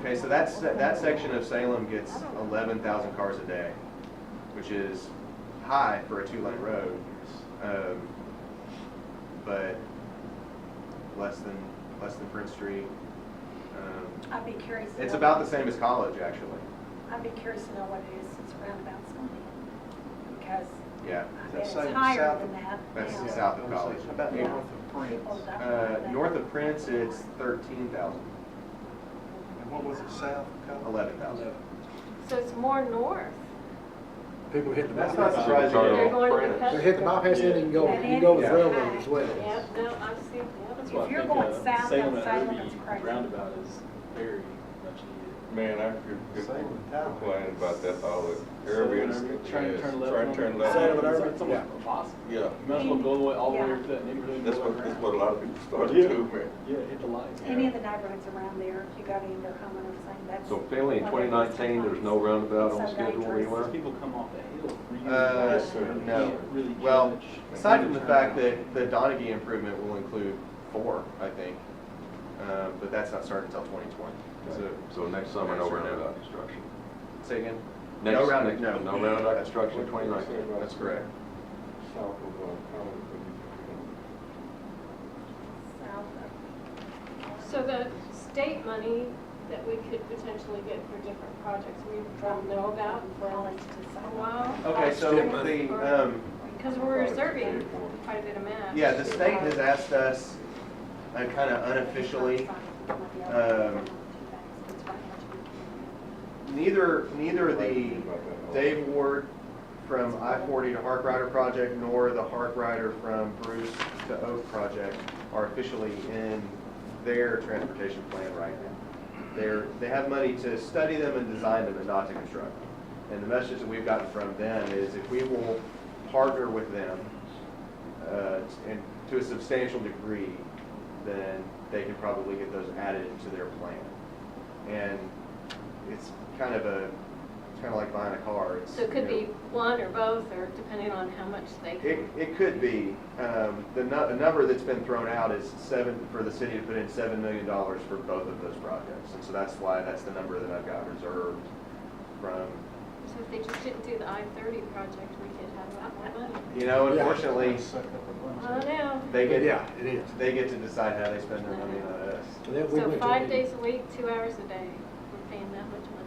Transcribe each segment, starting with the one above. Okay, so that's, that section of Salem gets eleven thousand cars a day, which is high for a two-lane road. um, But less than, less than Prince Street. Um, I'd be curious. to It's know- about the same as college, actually. I'd be curious to know what it is since roundabouts going in, because Yeah. I Is bet that it's south- higher south than of- that that's now. south. of Yeah, college. About Yeah. north of People Prince. don't Uh, know that. North of Prince, it's thirteen thousand, And what was it, south of college? eleven thousand. So it's more north. People hit the That's not bypass. surprising. Charlotte. They're going to Prince. They hit the bypass and then you can go, you can go to the railroad as well. Yep, no, I've seen, yep. That's why I If you're think going south on uh, Salem and Salem, it's Irby crazy. roundabout is very much needed. Man, I could could Same with Tyler. complain about that all the Arabian. Trying to turn left. Trying to turn left. Salem and It's Irby. it's almost impossible. Yeah, You might as well go all the way, all the way up to that neighborhood. and that's go all what, the way that's around. what a lot of people started Yeah. to, man. Yeah, hit the lights. Any of the neighborhoods around there, if you go to either home and everything, that's. So Finley, in 2019, there's no roundabout on It's so schedule dangerous. anywhere? People come off the hill. really Uh, fast, sir, you no. can't really Well, judge. aside from the Turn fact around. that the Donaghy improvement will include four, I think, uh, but that's not starting until twenty twenty. So, So next summer, no roundabout construction. say again? Next- No round, next- no. No roundabout construction in 2019. That's correct. South of, uh, College. South of- So the state money that we could potentially get for different projects, we don't know about for College to a Salem. while. Okay, so the, um, Because we're reserving quite a bit of match. yeah, the state has asked us, uh, kind of unofficially, um, neither, neither the Dave Ward from I-40 to Hark Rider project, nor the Hark Rider from Bruce to Oak project are officially in their transportation plan right now. They're, they have money to study them and design them and not to construct. And the message that we've gotten from them is if we will partner with them, uh, and to a substantial degree, then they can probably get those added to their plan. And it's kind of a, it's kind of like buying a car. It's, So it could you know, be one or both, or depending on how much they it, can. it could be. Um, The nu- the number that's been thrown out is seven, for the city to put in $7 million for both of those projects. And so that's why, that's the number that I've got reserved from, So if they just didn't do the I-30 project, we could have a lot more money. you know, Yeah. unfortunately, I don't know. they But get, yeah, it is. they get to decide how they spend their money, not us. And then we So went to- five days a week, two hours a day, we're paying that much money.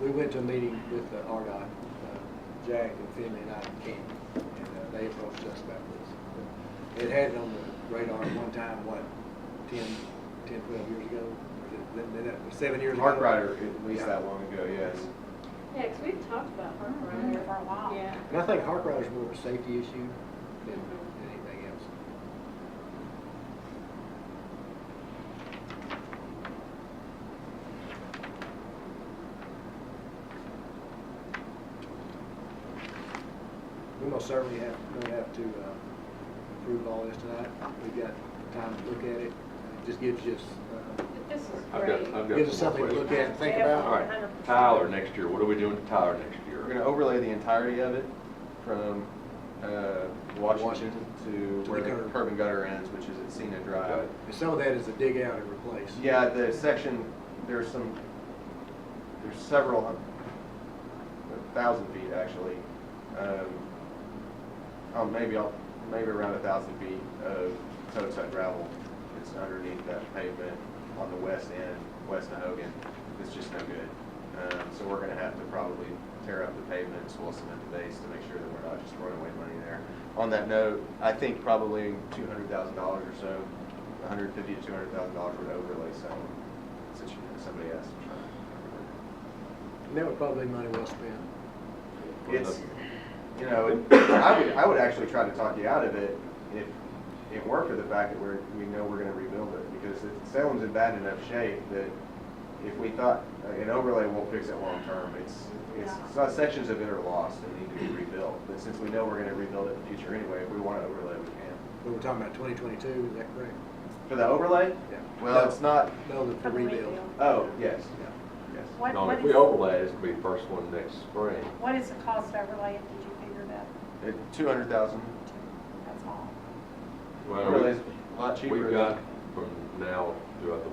We went to a meeting with the RDOT, uh, Jack and Finley and I and Ken, and uh, they approached us about this. It had it on the radar at one time, what, 10, 10, 12 years ago? Then- then that was Seven years ago? Mark Ryder, at least that long ago, yes. Yeah, 'cause we've talked about Harper Mhm. For a while. Mm-hmm. Yeah. And I think Hark Rider's more of a safety issue than Mhm. than anything else. We most certainly have, gonna have to uh, approve all this tonight. We've got time to look at it. It just gives us, uh, But This is I've got, great. I've got. gives us some something more to look questions. at and think All about. right, Tyler next year, what are we doing to Tyler next We're year? going to overlay the entirety of it from uh, Washington To to the where the gutter. curb and gutter ends, which is at Cena Drive. And some of that is to dig out and replace. Yeah, the section, there's some, there's several, hun- a thousand feet actually. um, Oh, maybe, I'll maybe around a thousand feet of toe tut gravel that's underneath that pavement on the west end, west of Hogan. It's just no good. Um, So we're gonna have to probably tear up the pavement, and swell cement the base to make sure that we're not just throwing away money there. On that note, I think probably two hundred thousand dollars or so, a hundred fifty to two hundred thousand dollars would overlay some, since you- somebody asked. to try. And that would probably be money well spent. It's, you know, it- I would, I would actually try to talk you out of it if it weren't for the fact that we're, we know we're gonna rebuild it, because it- Salem's in bad enough shape that if we thought, uh, an overlay won't fix it long term, it's, it's, it's not sections of it are lost and need to be rebuilt, but since we know we're gonna rebuild it in the future anyway, if we wanna overlay, we can. We were talking about 2022, is that correct? For the overlay? Yeah. Well, it's not, No, the- For the the rebuild. rebuild. oh, yes, yes. What, No, what if we is, overlay, it's gonna be first one next spring. what is the cost overlay, and did you figure that, Two hundred thousand. that's all? Well, Overlay's a lot cheaper. We've than- got from now throughout the